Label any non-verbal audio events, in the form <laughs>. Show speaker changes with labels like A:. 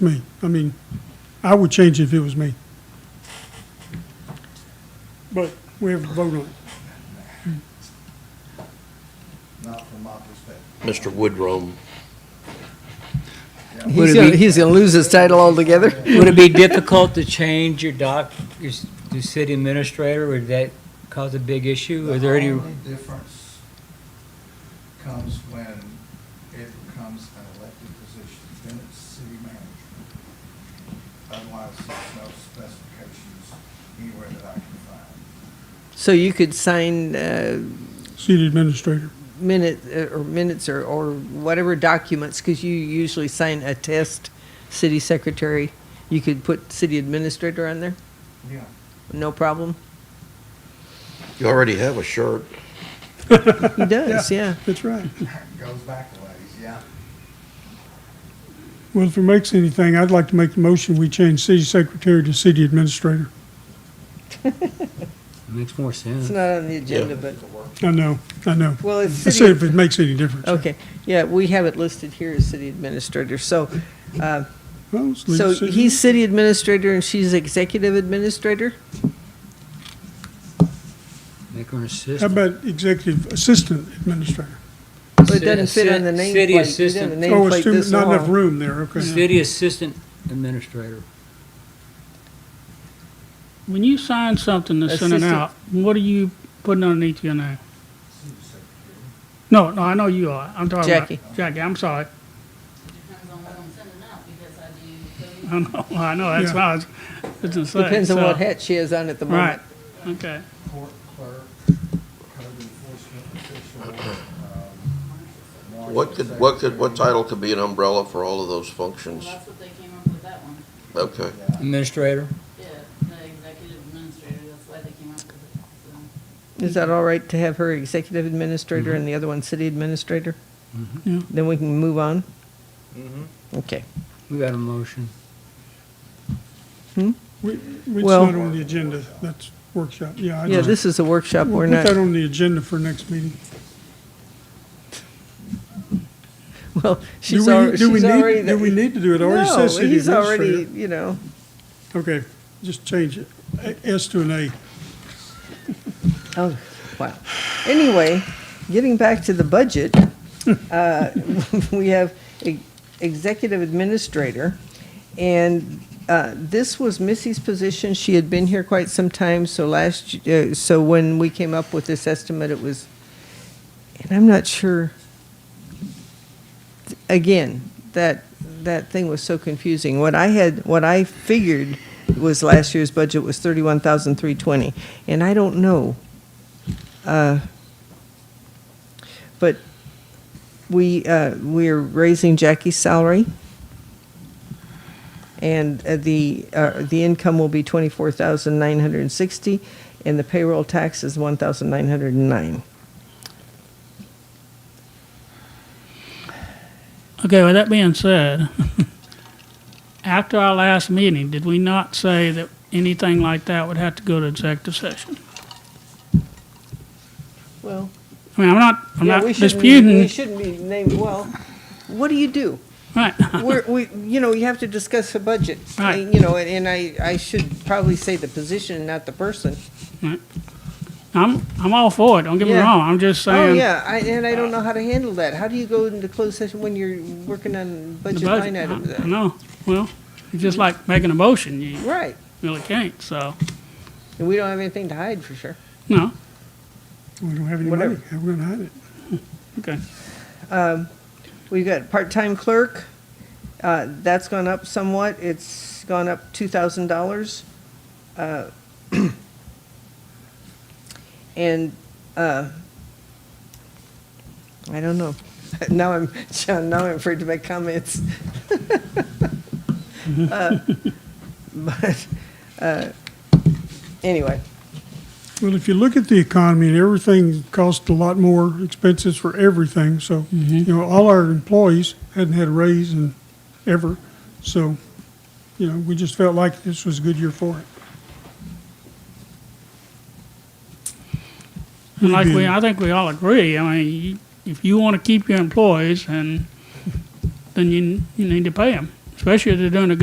A: Me, I mean, I would change it if it was me. But we have to vote on it.
B: not from my perspective.
C: Mr. Woodrum.
D: Would
E: He's
D: it
E: gonna,
D: be-
E: he's gonna lose his title altogether.
D: <laughs> Would it be
E: <laughs>
D: difficult to change your doc, your, s- your city administrator, would that cause a big issue? Are there
B: The
D: any,
B: only difference comes when it becomes an elected position, then it's city management. Otherwise, there's no specifications anywhere that I can find.
E: So you could sign uh,
A: City administrator.
E: minute, uh, or minutes or, or whatever documents, because you usually sign a test, city secretary. You could put city administrator on there,
B: Yeah.
E: no problem.
C: You already have a shirt.
E: He does, yeah.
A: That's right.
B: Goes back a ways, yeah.
A: Well, if it makes anything, I'd like to make the motion, we change city secretary to city administrator.
D: makes more sense?
E: It's not on the agenda, but,
A: I know, I know.
E: well, it's
A: I said
E: city,
A: if it makes any difference.
E: okay. Yeah, we have it listed here as city administrator, so, uh,
A: Well, let's leave
E: so
A: city-
E: he's city administrator and she's executive administrator?
D: Make her an
A: How
D: assistant.
A: about executive assistant administrator?
E: Well, it doesn't fit on the
D: Ci-
E: nameplate.
D: City
E: You don't have
D: assistant,
E: a
A: Oh,
E: nameplate
A: it's too,
E: this
A: not enough
E: long.
A: room there, okay.
D: city assistant administrator.
F: When you sign something to send it
E: Assistant.
F: out, what are you putting underneath your name? No, no, I know you are. I'm talking
E: Jackie.
F: about Jackie. I'm sorry.
G: Depends on what I'm sending out, because I do
F: I
G: W
F: know. I know. That's
A: Yeah.
F: why I was, it's insane.
E: Depends on
F: so-
E: what hat she has on at the
F: Right.
E: moment.
F: Okay.
B: Court clerk, code enforcement official, um.
C: What could, what could, what title could be an umbrella for all of those functions?
G: Well, that's what they came up with that one.
C: Okay.
D: Administrator,
G: Yeah, the executive administrator, that's why they came up with it. So,
E: Is that all right to have her executive administrator
A: Mm-hmm.
E: and the other one city administrator?
F: Yeah.
E: Then we can move on? Okay.
D: we got a motion.
A: We, we- it's
E: Well-
A: not on the agenda, that's workshop, yeah. I
E: Yeah,
A: just-
E: this is a workshop, we're
A: We'll put that
E: not,
A: on the agenda for next meeting.
E: <laughs> well,
A: Do
E: she's
A: we,
E: already,
A: do we
E: she's already.
A: need, do we need to do it? It Already
E: No,
A: says city
E: he's already,
A: administrator.
E: you know,
A: Okay, just change it. A- S to an A.
E: oh, wow. Anyway, getting back to the budget, uh, we have e- executive administrator. And uh, this was Missy's position. She had been here quite some time, so last, y- uh, so when we came up with this estimate, it was, and I'm not sure, again, that, that thing was so confusing. What I had, what I figured was last year's budget was 31,320, and I don't know. Uh, But we, uh, we're raising Jackie's salary. And uh, the, uh, the income will be twenty-four thousand nine hundred and sixty, and the payroll tax is one thousand nine hundred and nine.
F: Okay. With that being said, <laughs> after our last meeting, did we not say that anything like that would have to go to executive session?
E: Well,
F: I mean, I'm not. I'm
E: yeah,
F: not
E: we shouldn't, we
F: disputing.
E: shouldn't be named, well, what do you do?
F: Right. <laughs>
E: We're, we, you know, you have to discuss a budget.
F: Uh-uh. Right.
E: You know, and I, I should probably say the position, not the person.
F: I'm. I'm all for it. Don't get me
E: Yeah.
F: wrong. I'm just saying.
E: Oh, yeah, I, and I don't know how to handle that. How do you go into closed session when you're working on budget
F: the budget. Mm-hmm.
E: line items?
F: I, I know. Well, it's just like making a motion. You
E: Right,
F: really can't. So
E: and we don't have anything to hide for sure.
F: no.
A: We don't have any money.
E: Whatever.
A: How we gonna hide it?
F: Okay.
E: We've got part-time clerk, uh, that's gone up somewhat, it's gone up two thousand dollars. Uh, <clears throat> And, uh, I don't know, <laughs> now I'm, John, now I'm afraid to make comments. <laughs> Uh, <laughs> But, uh, anyway,
A: Well, if you look at the economy and everything costs a lot more expenses for everything, so,
E: Mm-hmm.
A: you know, all our employees hadn't had a raise in ever. So, you know, we just felt like this was a good year for it.
F: And like we,
A: Mhm.
F: I think we all agree, I mean, you- if you want to keep your employees, and then you, you need to pay them. especially if they're doing a good